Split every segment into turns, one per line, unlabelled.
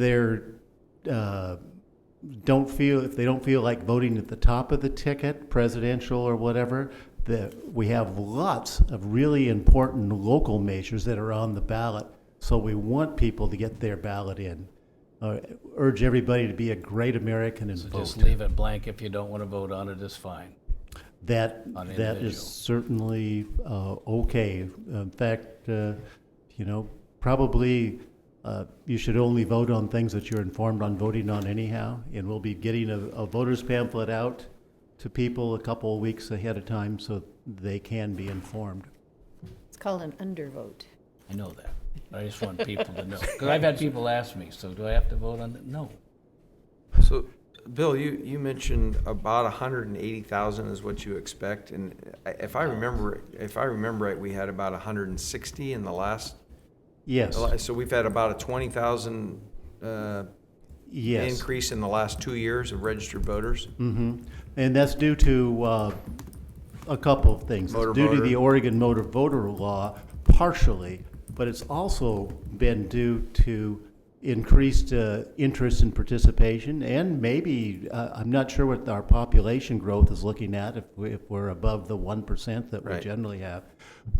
they're, uh, don't feel, if they don't feel like voting at the top of the ticket, presidential or whatever, that we have lots of really important local measures that are on the ballot. So we want people to get their ballot in. Uh, Urge everybody to be a great American and
So just
vote.
leave it blank. If you don't want to vote on it, it's fine.
That,
on
that
individual.
is certainly uh, okay. In fact, uh, you know, probably uh, you should only vote on things that you're informed on voting on anyhow. And we'll be getting a a voter's pamphlet out to people a couple of weeks ahead of time so they can be informed.
It's called an undervote.
I know that. I just want people to know. Because I've had people ask me, so do I have to vote on it? No.
So, Bill, you, you mentioned about a hundred and eighty thousand is what you expect, and I- if I remember, if I remember right, we had about a hundred and sixty in the last, uh,
Yes,
so we've had about a twenty thousand, uh,
yes.
increase in the last two years of registered voters?
hmm And that's due to uh, a couple of things.
Motor
It's due to
voter.
the Oregon motor voter law partially, but it's also been due to increased uh, interest and participation, and maybe, uh, I'm not sure what our population growth is looking at, if we- if we're above the 1% that we
Right.
generally have.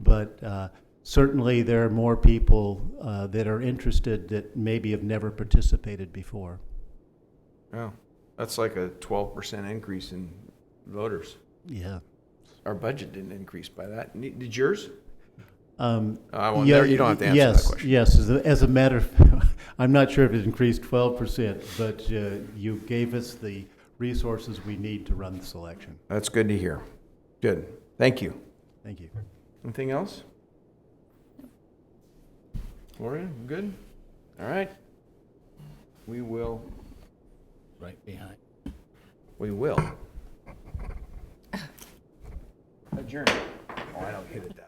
But uh, certainly, there are more people uh, that are interested that maybe have never participated before.
Oh, that's like a twelve percent increase in voters.
Yeah.
Our budget didn't increase by that. Ne- Did yours?
Um,
Oh, I won't-
yeah,
there- you don't have to answer that
yes,
question.
Yes, as a, as a matter of, I'm not sure if it increased 12%, but uh, you gave us the resources we need to run this election.
That's good to hear. Good. Thank you.
Thank you.
Anything else? Gloria, good? All right. We will,
Right behind.
we will. Adjourn. Oh, I don't get it that